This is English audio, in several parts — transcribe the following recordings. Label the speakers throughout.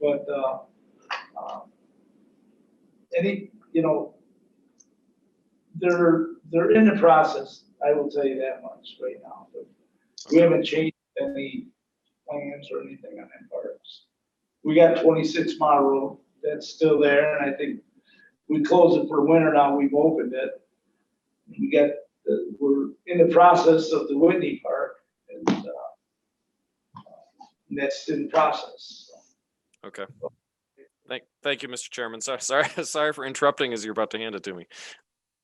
Speaker 1: But, uh, uh, any, you know, they're, they're in the process, I will tell you that much right now. But We haven't changed any plans or anything on that part. We got twenty-six mile road, that's still there, and I think we closed it for winter now, we've opened it. We got, the- we're in the process of the Whitney Park, and, uh, and that's in process.
Speaker 2: Okay. Thank, thank you, Mr. Chairman. Sorry, sorry, sorry for interrupting as you're about to hand it to me.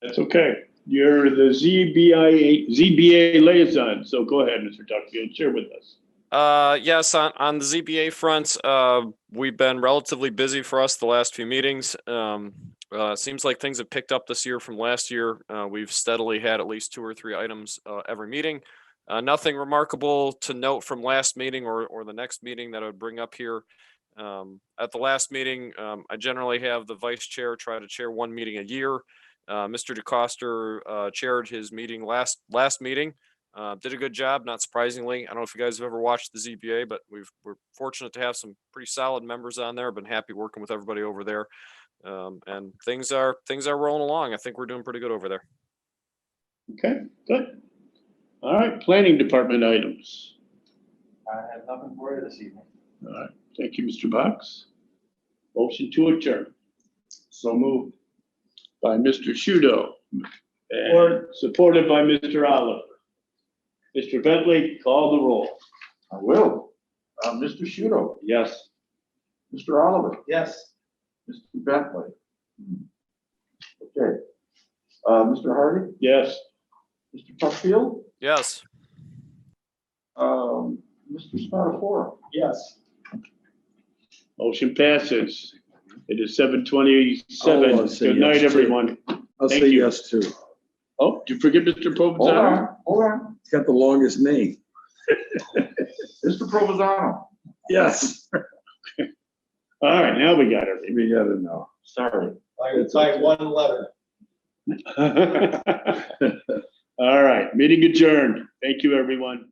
Speaker 3: That's okay. You're the ZBI, ZBA liaison, so go ahead, Mr. Duckfield, share with us.
Speaker 2: Uh, yes, on, on the ZBA front, uh, we've been relatively busy for us the last few meetings. Um, uh, seems like things have picked up this year from last year. Uh, we've steadily had at least two or three items, uh, every meeting. Uh, nothing remarkable to note from last meeting or, or the next meeting that I would bring up here. Um, at the last meeting, um, I generally have the vice chair try to chair one meeting a year. Uh, Mr. DeCoster, uh, chaired his meeting last, last meeting. Uh, did a good job, not surprisingly. I don't know if you guys have ever watched the ZBA, but we've, we're fortunate to have some pretty solid members on there. Been happy working with everybody over there. Um, and things are, things are rolling along. I think we're doing pretty good over there.
Speaker 3: Okay, good. All right, planning department items.
Speaker 4: I have nothing for you this evening.
Speaker 3: All right, thank you, Mr. Box. Motion to adjourn. So moved. By Mr. Shudo. And
Speaker 1: Or-
Speaker 3: supported by Mr. Oliver. Mr. Bentley, call the roll.
Speaker 5: I will. Uh, Mr. Shudo,
Speaker 3: Yes.
Speaker 5: Mr. Oliver,
Speaker 1: Yes.
Speaker 5: Mr. Bentley. Okay. Uh, Mr. Hardy,
Speaker 3: Yes.
Speaker 5: Mr. Tuckfield,
Speaker 2: Yes.
Speaker 5: um, Mr. Spatafora.
Speaker 1: Yes.
Speaker 3: Motion passes. It is seven twenty-seven.
Speaker 6: Oh, I'll say
Speaker 3: Good night,
Speaker 6: yes, too.
Speaker 3: everyone.
Speaker 6: I'll
Speaker 3: Thank
Speaker 6: say
Speaker 3: you.
Speaker 6: yes too. It's
Speaker 3: Oh, did you forget Mr.
Speaker 5: Hold
Speaker 3: Provenzano?
Speaker 5: on, hold on.
Speaker 6: got the longest name.
Speaker 5: Mr. Provozano.
Speaker 6: Yes.
Speaker 3: All right, now we got
Speaker 6: We got it now.
Speaker 5: Sorry.
Speaker 4: It's like one letter.
Speaker 3: everything. All right, meeting adjourned. Thank you, everyone.